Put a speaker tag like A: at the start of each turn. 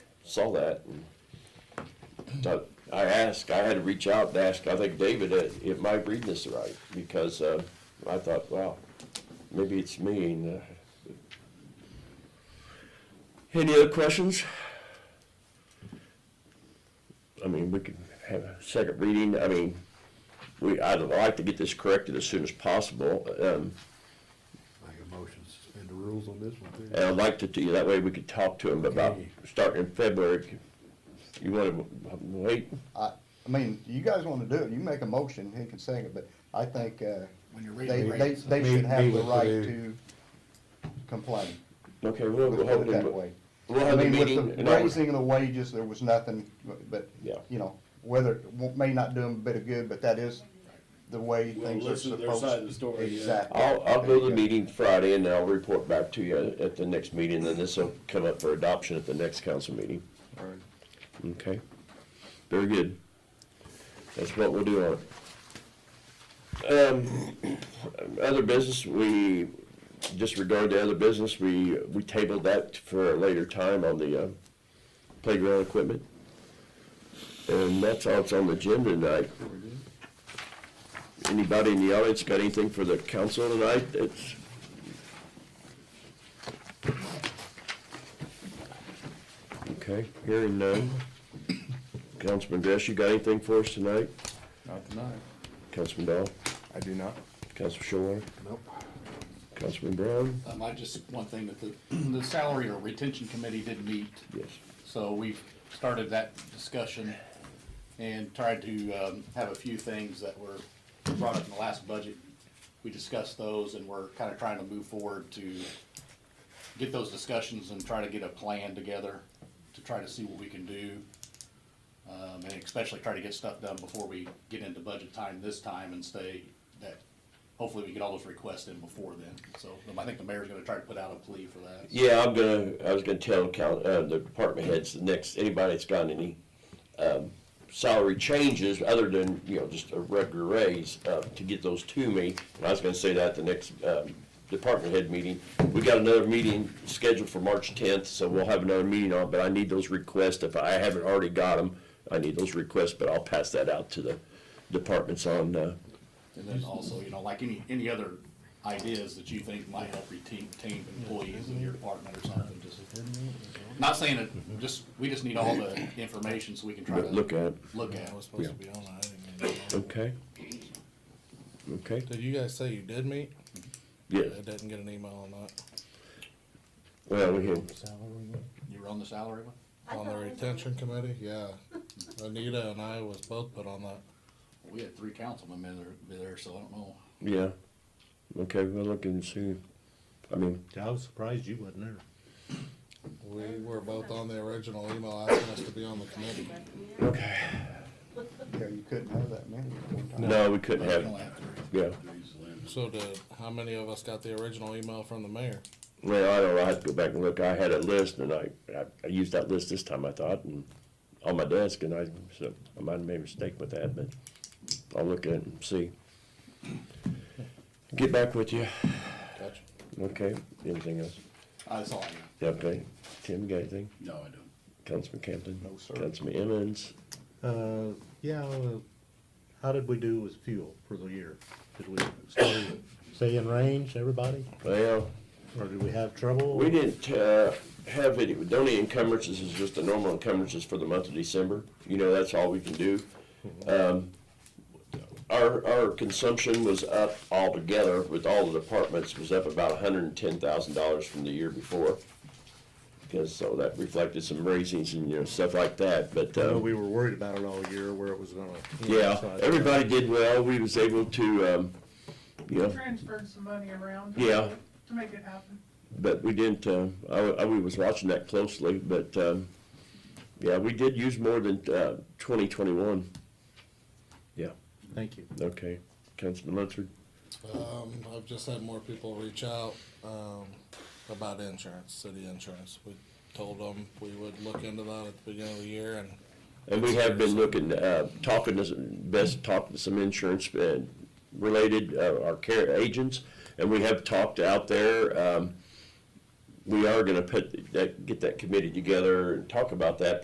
A: saw that and thought, I asked, I had to reach out and ask, I think David, uh, am I reading this right? Because, uh, I thought, wow, maybe it's me and, uh, any other questions? I mean, we could have a second reading, I mean, we, I'd like to get this corrected as soon as possible, um,
B: Make a motion, to suspend the rules on this one too.
A: and I'd like to do, that way we could talk to him about
B: Okay.
A: starting in February. You wanna wait?
C: I, I mean, you guys wanna do it, you make a motion, he can second it, but I think, uh,
D: When you're
C: they,
D: reading
C: they,
D: rates,
C: they
B: Me-
C: should have
B: me
C: the
B: with
C: right
B: the-
C: to complain.
A: Okay, we'll,
C: Let's
A: we'll
C: put
A: hold
C: it
A: them.
C: that way.
A: We'll
C: I
A: have a
C: mean, with
A: meeting.
C: the
A: and I'll-
C: raising of the wages, there was nothing, but,
A: Yeah.
C: you know, whether, it won't- may not do them a bit of good, but that is the way
D: We'll
C: things are
D: listen to
C: supposed.
D: their side of the story, yeah.
C: Exactly.
A: I'll, I'll go to the
C: Okay.
A: meeting Friday and I'll report back to you at the next meeting, and this will come up for adoption at the next council meeting.
C: All right.
A: Okay, very good. That's what we'll do on it. Um, other business, we disregard the other business, we, we tabled that for a later time on the, uh, playground equipment. And that's all that's on the agenda tonight. Anybody in the audience got anything for the council tonight that's? Okay, hearing none. Councilman Dress, you got anything for us tonight?
D: Not tonight.
A: Councilman Dahl,
B: I do not.
A: Councilman Shore,
B: Nope.
A: Councilman Brown?
D: Um, I just, one thing that the, the salary or retention committee did meet,
A: Yes.
D: so we've started that discussion and tried to, um, have a few things that were brought up in the last budget. We discussed those and we're kinda trying to move forward to get those discussions and try to get a plan together to try to see what we can do. Um, and especially try to get stuff done before we get into budget time this time and stay that, hopefully we get all those requests in before then. So um, I think the mayor's gonna try to put out a plea for that.
A: Yeah, I'm gonna, I was gonna tell count, uh, the department heads, the next, anybody that's got any, um, salary changes other than, you know, just a regular raise, uh, to get those to me. And I was gonna say that at the next, um, department head meeting. We got another meeting scheduled for March tenth, so we'll have another meeting on, but I need those requests. If I haven't already got them, I need those requests, but I'll pass that out to the departments on, uh,
D: And then also, you know, like any, any other ideas that you think might help retain, retain employees in your department or something, just. Not saying it, just, we just need all the information so we can try to.
A: look at.
D: Look at.
E: was supposed to be on, I didn't get it.
A: Okay. Okay,
E: Did you guys say you did meet?
A: yeah,
E: I didn't get an email on that,
A: well, we had,
D: You were on the salary one?
E: on the retention committee, yeah. Anita and I was both put on that.
D: We had three councilmen in there, be there, so I don't know.
A: yeah. Okay, we'll look and see, I mean,
F: I was surprised you wasn't there.
E: We were both on the original email asking us to be on the committee.
A: okay.
C: Yeah, you couldn't have that many. at one time.
A: No, we couldn't
D: We
A: have,
D: don't
A: it.
D: have three.
A: yeah,
E: So did, how many of us got the original email from the mayor?
A: well, I don't know, I have to go back and look, I had a list and I, I, I used that list this time, I thought, and on my desk, and I, so, I might have made a mistake with that, but I'll look at it and see. Get back with you,
E: Gotcha.
A: okay, anything else?
D: That's all I
A: Yeah, Okay, Tim, you got anything?
D: know. No, I don't.
A: Councilman Campton?
C: No, sir.
A: Councilman Emmons?
F: Uh, yeah, uh, how did we do with fuel for the year? Did we stay, stay in range, everybody?
A: Well,
F: Or did we have trouble?
A: We didn't uh, have any, the only encumbrances is just the normal encumbrances for the month of December. You know, that's all we can do. Um, Our, our consumption was up altogether with all the departments, was up about hundred and ten thousand dollars from the year before. Because, so that reflected some raisings and, you know, stuff like that, but.
F: I
A: uh,
F: know we were worried about it all year, where it was gonna.
A: Yeah,
F: So I-
A: everybody did well. We was able to, um, you know,
G: transferred some money around.
A: Yeah.
G: To make it happen.
A: But we didn't, uh, I, I, we was watching that closely, but, um, yeah, we did use more than, uh, twenty twenty-one. Yeah,
F: Thank you.
A: okay. Councilman Lunsford?
E: Um, I've just had more people reach out, um, about insurance, city insurance. We told them we would look into that at the beginning of the year and
A: And we have been looking, uh, talking to, some- best talking to some insurance uh, related, uh, our care agents, and we have talked out there. Um, we are gonna put, that, get that committee together and talk about that